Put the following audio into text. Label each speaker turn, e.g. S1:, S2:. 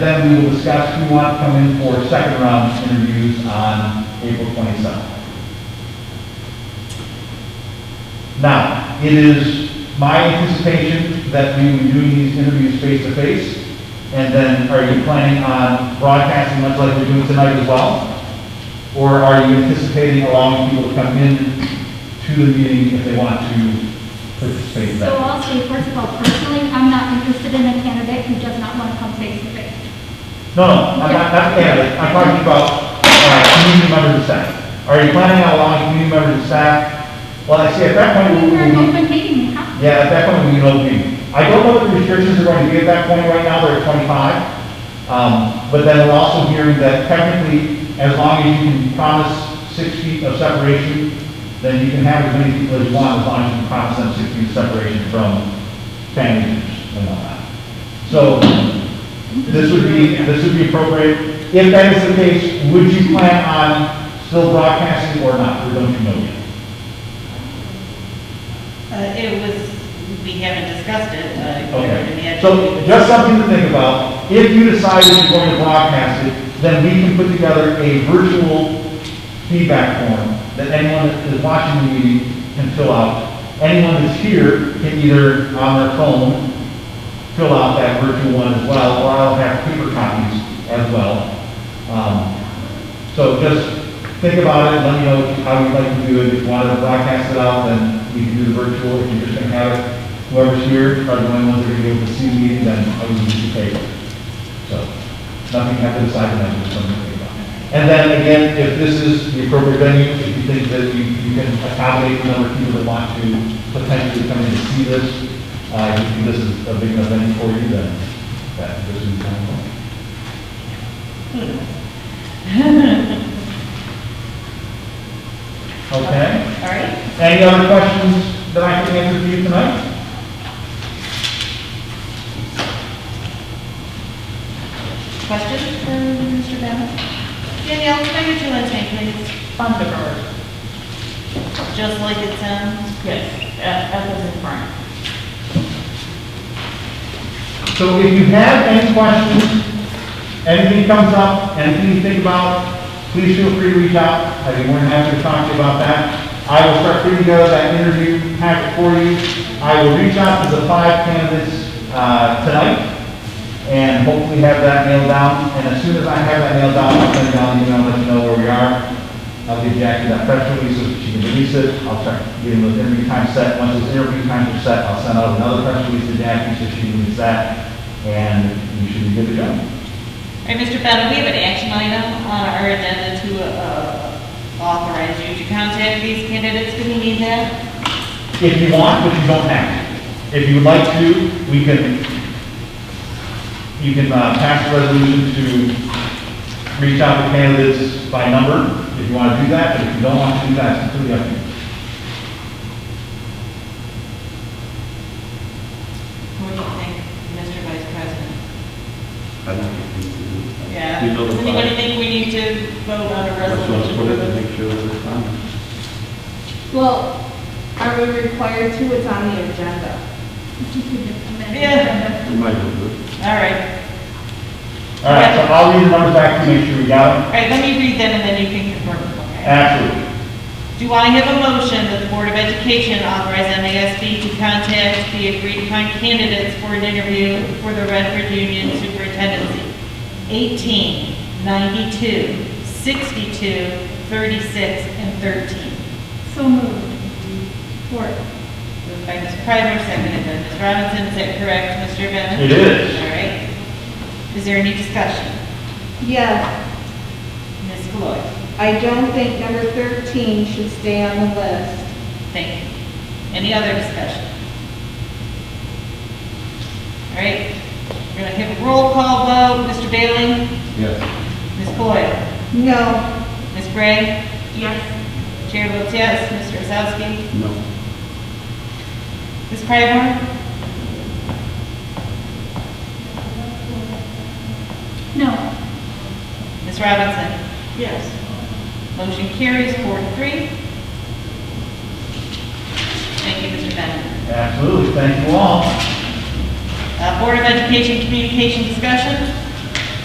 S1: Then we will discuss who want to come in for second round interviews on April 27th. Now, it is my anticipation that we will be doing these interviews face to face. And then are you planning on broadcasting much like we're doing tonight as well? Or are you anticipating allowing people to come in to the meeting if they want to participate in
S2: So
S1: that?
S2: I'll say, first of all, personally, I'm not interested in a candidate who does not want to come face to face.
S1: No, no, I'm not, not candidate, I'm talking about, uh, community members of staff. Are you planning on allowing community members of staff? Well, I see, at that
S2: I
S1: point, we,
S2: mean, we're an
S1: we,
S2: open meeting, we have to.
S1: yeah, at that point, we can open. I don't know what the restrictions are going to be at that point right now, they're at twenty-five. Um, but then we're also hearing that technically, as long as you can promise six feet of separation, then you can have as many people as you want, as long as you can promise them six feet of separation from family members and all that. So, this would be, this would be appropriate. If that is the case, would you plan on still broadcasting or not, or don't you know yet?
S3: Uh, It was, we haven't discussed it. uh, I would
S1: Okay.
S3: imagine we
S1: So
S3: would-
S1: just something to think about. If you decide that you're going to broadcast it, then we can put together a virtual feedback form that anyone that is watching the meeting can fill out. Anyone that's here can either on their phone fill out that virtual one as well, or I'll have paper copies as well. Um, So just think about it, let me know how you'd like to do it. If you want to broadcast it out, then we can do the virtual. If you're just going to have it, whoever's here, are the only ones that are going to be able to see the meeting, then I would use the paper. So nothing have to decide tonight, just something to think about. And then again, if this is the appropriate venue, if you think that you, you can accommodate the number of people that want to potentially come in to see this, uh, if this is a big enough venue for you, then that, this is kind of. Okay.
S3: All right,
S1: Any other questions that I can answer for you tonight?
S3: questions for Mr. Bennett? Danielle, can I get your last name, please?
S4: Thunderbird,
S3: Just like it sounds.
S4: yes,
S3: Uh,
S4: F F as in Frank.
S1: So if you have any questions, anything comes up, anything you think about, please feel free to reach out. I'd be more than happy to talk to you about that. I will start putting together that interview packet for you. I will reach out to the five candidates uh, tonight and hopefully have that nailed down. And as soon as I have that nailed down, I'll send you out an email, and let you know where we are. I'll give Jackie that press release so she can release it. I'll start getting those interview times set. Once those interview times are set, I'll send out another press release to Jackie so she can release that. And you should be good to go.
S3: All right, Mr. Bennett, we have an action item on our agenda to uh, authorize you to contact these candidates. Do we need that?
S1: If you want, but you don't have to. If you would like to, we can, you can uh, pass a resolution to reach out to candidates by number if you want to do that, but if you don't want to do that, it's completely up to you.
S3: What do you think, Mr. Vice President?
S5: I don't think we need to do that.
S3: Yeah.
S5: You know
S3: Does
S5: the
S3: anybody
S5: five.
S3: think we need to vote on a
S5: That's why I
S3: resolution?
S5: put it to make sure that it's on.
S6: Well, are we required to? It's on the agenda.
S3: Yeah,
S5: We might as well.
S3: all right.
S1: All right, so I'll read the numbers back to make sure we got
S3: All right, let me read them and then you can confirm, okay?
S1: it. Absolutely.
S3: Do I have a motion that the Board of Education authorize MASD to contact the agreed-upon candidates for an interview for the Redford Union Superintendency? 18, 92, 62, 36, and 13.
S2: So moved. Support.
S3: Moved by Ms. Pryor, seconded by Ms. Robinson. Is that correct, Mr.
S1: It
S3: Bennett?
S1: is.
S3: All right. Is there any discussion?
S6: Yes,
S3: Ms. Lloyd?
S6: I don't think number 13 should stay on the list.
S3: Thank you. Any other discussion? All right, we're going to have a roll call vote. Mr. Bailey?
S5: Yes.
S3: Ms. Boyd?
S6: No,
S3: Ms. Bray?
S4: Yes.
S3: Chair votes yes. Mr. Osowski?
S5: No.
S3: Ms. Pryor?
S2: No.
S3: Ms. Robinson?
S4: Yes.
S3: Motion carries four to three. Thank you, Mr. Bennett.
S1: Absolutely, thank you all.
S3: Uh, Board of Education communication discussion?